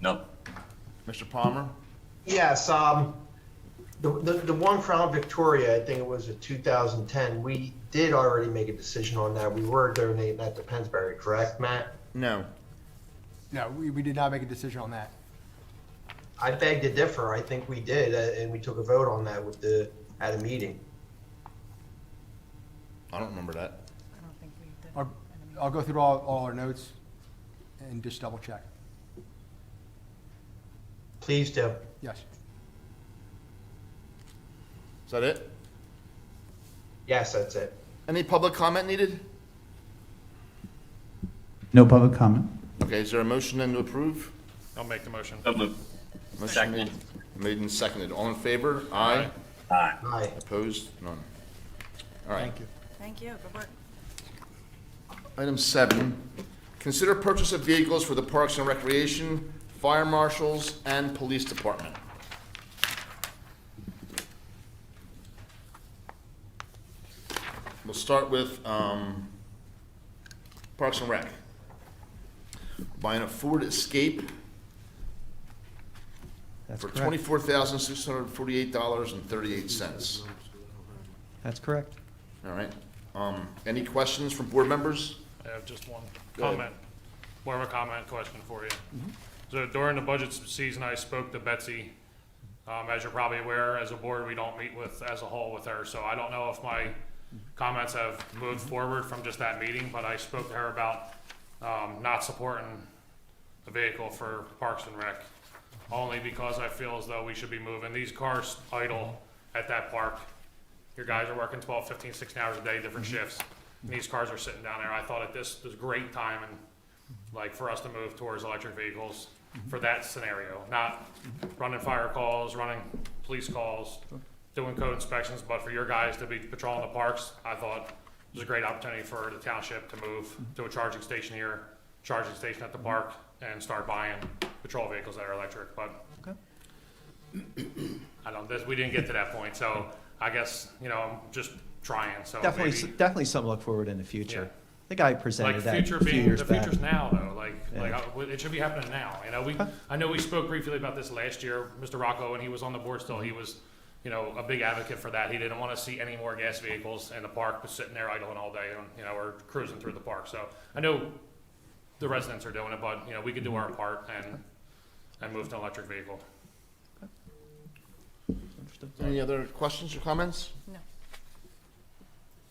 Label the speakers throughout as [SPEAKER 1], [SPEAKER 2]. [SPEAKER 1] No.
[SPEAKER 2] Mr. Palmer?
[SPEAKER 3] Yes, um, the, the, the one Crown Victoria, I think it was a 2010, we did already make a decision on that. We were donating that to Pensbury, correct, Matt?
[SPEAKER 2] No.
[SPEAKER 4] No, we, we did not make a decision on that.
[SPEAKER 3] I beg to differ. I think we did, uh, and we took a vote on that with the, at a meeting.
[SPEAKER 2] I don't remember that.
[SPEAKER 5] I don't think we did.
[SPEAKER 4] I'll, I'll go through all, all our notes and just double check.
[SPEAKER 3] Please do.
[SPEAKER 4] Yes.
[SPEAKER 2] Is that it?
[SPEAKER 3] Yes, that's it.
[SPEAKER 2] Any public comment needed?
[SPEAKER 6] No public comment.
[SPEAKER 2] Okay, is there a motion then to approve?
[SPEAKER 7] I'll make the motion.
[SPEAKER 1] So moved.
[SPEAKER 2] Motion
[SPEAKER 1] Second.
[SPEAKER 2] made- Made and seconded. All in favor? Aye.
[SPEAKER 1] Aye.
[SPEAKER 3] Aye.
[SPEAKER 2] Opposed? None. All right.
[SPEAKER 4] Thank you.
[SPEAKER 5] Thank you, good work.
[SPEAKER 2] Item seven, consider purchase of vehicles for the Parks and Recreation, Fire Marshals, and Police Department. We'll start with um, Parks and Rec. Buying a Ford Escape
[SPEAKER 6] That's
[SPEAKER 2] for
[SPEAKER 6] correct.
[SPEAKER 2] twenty-four thousand six hundred forty-eight dollars and thirty-eight cents.
[SPEAKER 6] That's correct.
[SPEAKER 2] All right. Um, Any questions from board members?
[SPEAKER 7] I have just one
[SPEAKER 2] Go ahead. Mm-hmm.
[SPEAKER 7] comment, more of a comment question for you. So during the budget season, I spoke to Betsy. Um, as you're probably aware, as a board, we don't meet with, as a whole with her, so I don't know if my comments have moved forward from just that meeting, but I spoke to her about, um, not supporting the vehicle for Parks and Rec. Only because I feel as though we should be moving. These cars idle at that park. Your guys are working 12, 15, 16 hours a day, different shifts. And these cars are sitting down there. I thought at this, this great time and like for us to move towards electric vehicles for that scenario, not running fire calls, running police calls, doing code inspections, but for your guys to be patrolling the parks, I thought it was a great opportunity for the township to move to a charging station here, charging station at the
[SPEAKER 6] Mm-hmm.
[SPEAKER 7] park, and start buying patrol vehicles that are electric, but I don't, this, we didn't get to that point, so I guess, you know, I'm just trying, so
[SPEAKER 6] Definitely, s-
[SPEAKER 7] maybe-
[SPEAKER 6] definitely something to look forward in the future.
[SPEAKER 7] Yeah.
[SPEAKER 6] I think I
[SPEAKER 7] like
[SPEAKER 6] presented that
[SPEAKER 7] future
[SPEAKER 6] a few
[SPEAKER 7] being
[SPEAKER 6] years
[SPEAKER 7] the
[SPEAKER 6] back.
[SPEAKER 7] future's now though like
[SPEAKER 6] Yeah.
[SPEAKER 7] like I, it should be happening now you know we i know we spoke briefly about this last year mr rocco when he was on the board still he was you know a big advocate for that he didn't want to see any more gas vehicles in the park but sitting there idling all day and you know or cruising through the park so i know the residents are doing it but you know we can do our part and and move to an electric vehicle
[SPEAKER 6] Understood.
[SPEAKER 2] Any other questions or comments?
[SPEAKER 5] No.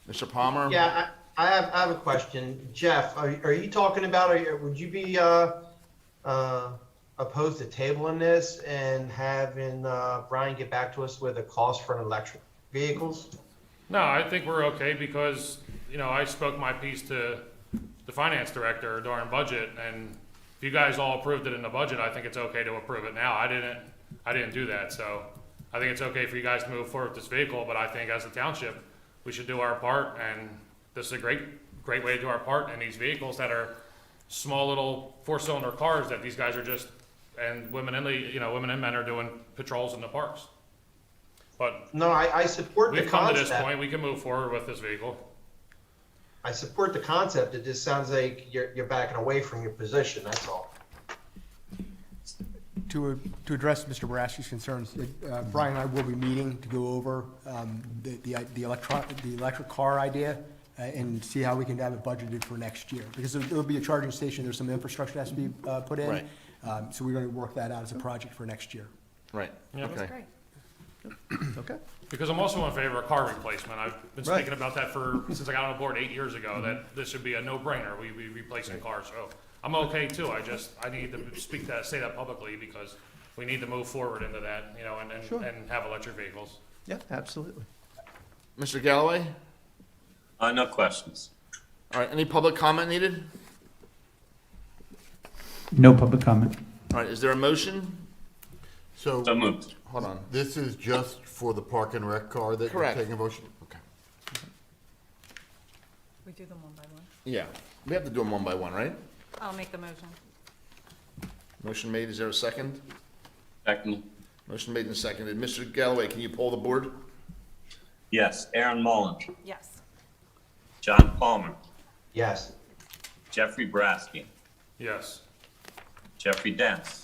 [SPEAKER 2] Mr. Palmer?
[SPEAKER 3] Yeah, I, I have, I have a question. Jeff, are, are you talking about, are you, would you be, uh, uh, opposed to tabling this and having, uh, Brian get back to us with a cost for an electric vehicles?
[SPEAKER 7] No, I think we're okay because, you know, I spoke my piece to the finance director during budget and if you guys all approved it in the budget, I think it's okay to approve it now. I didn't, I didn't do that, so I think it's okay for you guys to move forward with this vehicle, but I think as a township, we should do our part and this is a great, great way to do our part and these vehicles that are small little four-cylinder cars that these guys are just, and women and, le- you know, women and men are doing patrols in the parks. But
[SPEAKER 3] No, I, I support the
[SPEAKER 7] We've come to this
[SPEAKER 3] concept.
[SPEAKER 7] point, we can move forward with this vehicle.
[SPEAKER 3] I support the concept. It just sounds like you're, you're backing away from your position, that's all.
[SPEAKER 4] To, to address Mr. Boraski's concerns, uh, Brian and I will be meeting to go over um, the, the- the electron, the electric car idea uh, and see how we can have it budgeted for next year. Because there'll- there'll be a charging station, there's some infrastructure that has to be uh, put in.
[SPEAKER 2] Right.
[SPEAKER 4] Um, So we're going to work that out as a project for next year.
[SPEAKER 2] Right.
[SPEAKER 7] Yeah.
[SPEAKER 2] Okay.
[SPEAKER 5] Great.
[SPEAKER 6] Okay.
[SPEAKER 7] Because I'm also in favor of car replacement. I've been
[SPEAKER 6] Right.
[SPEAKER 7] speaking about that for, since I got on the board eight years ago, that this should be a no-brainer. We be replacing cars, so I'm okay too. I just, I need to speak that, say that publicly because we need to move forward into that, you know, and,
[SPEAKER 6] Sure.
[SPEAKER 7] and, and have electric vehicles.
[SPEAKER 6] Yeah, absolutely.
[SPEAKER 2] Mr. Galloway?
[SPEAKER 1] Uh, no questions.
[SPEAKER 2] All right, any public comment needed?
[SPEAKER 6] No public comment.
[SPEAKER 2] All right, is there a motion?
[SPEAKER 8] So
[SPEAKER 1] So moved.
[SPEAKER 2] Hold on.
[SPEAKER 8] this is just for the park and rec car that you're
[SPEAKER 2] Correct.
[SPEAKER 8] taking a motion? Okay.
[SPEAKER 5] We do them one by one.
[SPEAKER 2] Yeah, we have to do them one by one, right?
[SPEAKER 5] I'll make the motion.
[SPEAKER 2] Motion made, is there a second?
[SPEAKER 1] Second.
[SPEAKER 2] Motion made and seconded. Mr. Galloway, can you poll the board?
[SPEAKER 1] Yes. Aaron Mullins,
[SPEAKER 5] Yes.
[SPEAKER 1] John Palmer,
[SPEAKER 3] Yes.
[SPEAKER 1] Jeffrey Brasky,
[SPEAKER 7] Yes.
[SPEAKER 1] Jeffrey Dance,